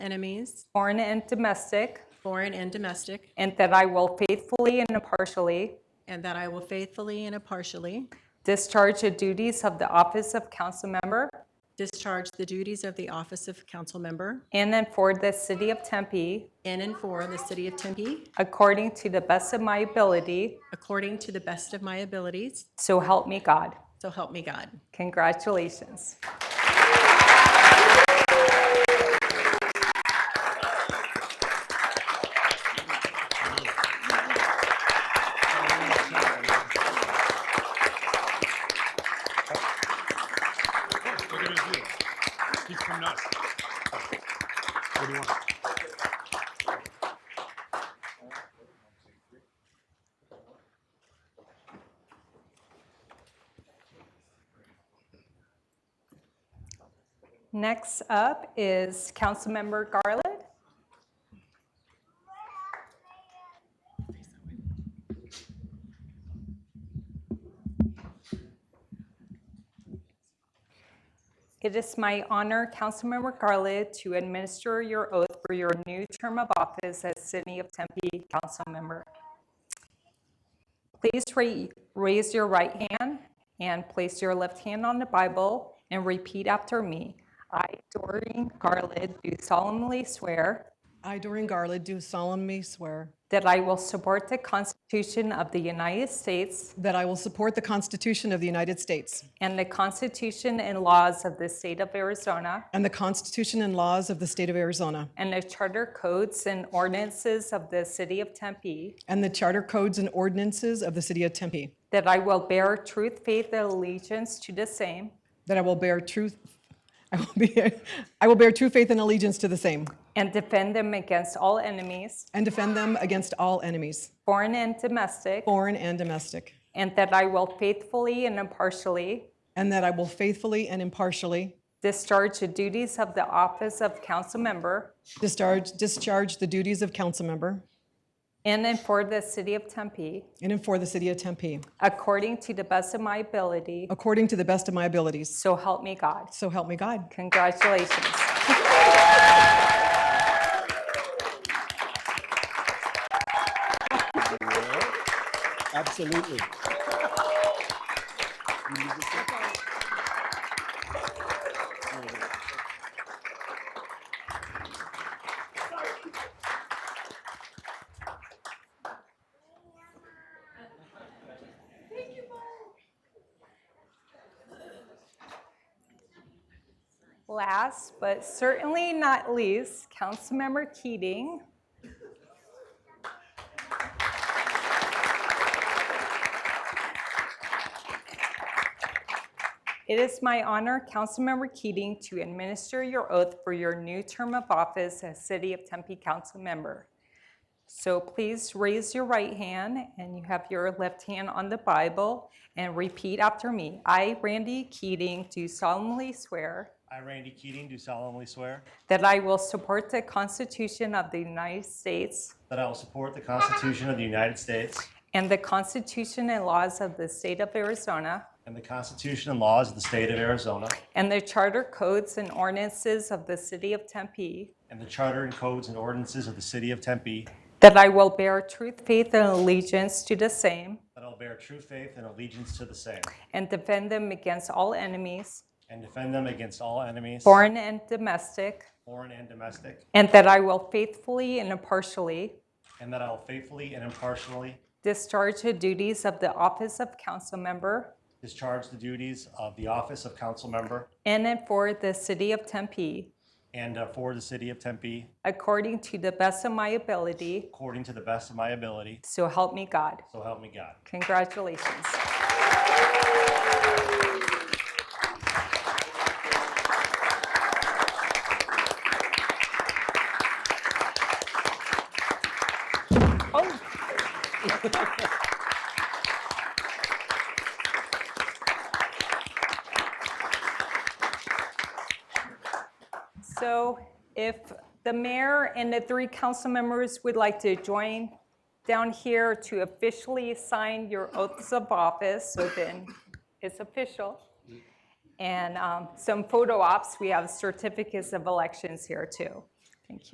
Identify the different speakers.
Speaker 1: enemies,
Speaker 2: foreign and domestic,
Speaker 1: foreign and domestic,
Speaker 2: and that I will faithfully and impartially
Speaker 1: and that I will faithfully and impartially
Speaker 2: discharge the duties of the office of council member
Speaker 1: discharge the duties of the office of council member
Speaker 2: in and for the city of Tempe
Speaker 1: in and for the city of Tempe
Speaker 2: according to the best of my ability,
Speaker 1: according to the best of my abilities.
Speaker 2: so help me God.
Speaker 1: So help me God.
Speaker 2: Congratulations.
Speaker 3: Look at his deal. He's from us. What do you want?
Speaker 2: Next up is Councilmember Garland. It is my honor, Councilmember Garland, to administer your oath for your new term of office as City of Tempe Council Member. Please ra- raise your right hand and place your left hand on the Bible and repeat after me. I, Doreen Garland, do solemnly swear
Speaker 4: I, Doreen Garland, do solemnly swear
Speaker 2: that I will support the Constitution of the United States
Speaker 4: that I will support the Constitution of the United States
Speaker 2: and the Constitution and laws of the state of Arizona
Speaker 4: and the Constitution and laws of the state of Arizona
Speaker 2: and the charter codes and ordinances of the city of Tempe,
Speaker 4: and the charter codes and ordinances of the city of Tempe,
Speaker 2: that I will bear truth, faith, and allegiance to the same
Speaker 4: that I will bear truth, I will be, I will bear true faith and allegiance to the same
Speaker 2: and defend them against all enemies,
Speaker 4: and defend them against all enemies,
Speaker 2: foreign and domestic,
Speaker 4: foreign and domestic,
Speaker 2: and that I will faithfully and impartially
Speaker 4: and that I will faithfully and impartially
Speaker 2: discharge the duties of the office of council member
Speaker 4: discharge, discharge the duties of council member
Speaker 2: in and for the city of Tempe
Speaker 4: in and for the city of Tempe
Speaker 2: according to the best of my ability,
Speaker 4: according to the best of my abilities.
Speaker 2: so help me God.
Speaker 4: So help me God.
Speaker 2: Congratulations.
Speaker 5: Absolutely.
Speaker 2: Last but certainly not least, Councilmember Keating. It is my honor, Councilmember Keating, to administer your oath for your new term of office as City of Tempe Council Member. So please raise your right hand and you have your left hand on the Bible and repeat after me. I, Randy Keating, do solemnly swear.
Speaker 6: I, Randy Keating, do solemnly swear
Speaker 2: That I will support the Constitution of the United States
Speaker 6: that I will support the Constitution of the United States
Speaker 2: and the Constitution and laws of the state of Arizona
Speaker 6: and the Constitution and laws of the state of Arizona
Speaker 2: and the charter codes and ordinances of the city of Tempe.
Speaker 6: and the charter and codes and ordinances of the city of Tempe,
Speaker 2: That I will bear truth, faith, and allegiance to the same
Speaker 6: that I will bear true faith and allegiance to the same
Speaker 2: and defend them against all enemies,
Speaker 6: and defend them against all enemies,
Speaker 2: foreign and domestic,
Speaker 6: foreign and domestic,
Speaker 2: and that I will faithfully and impartially
Speaker 6: and that I will faithfully and impartially
Speaker 2: discharge the duties of the office of council member
Speaker 6: discharge the duties of the office of council member
Speaker 2: in and for the city of Tempe
Speaker 6: and uh, for the city of Tempe
Speaker 2: according to the best of my ability.
Speaker 6: according to the best of my ability.
Speaker 2: So help me God.
Speaker 6: So help me God.
Speaker 2: Congratulations. Oh. So if the mayor and the three council members would like to join down here to officially sign your oaths of office, so then it's official. And um, some photo ops, we have certificates of elections here too.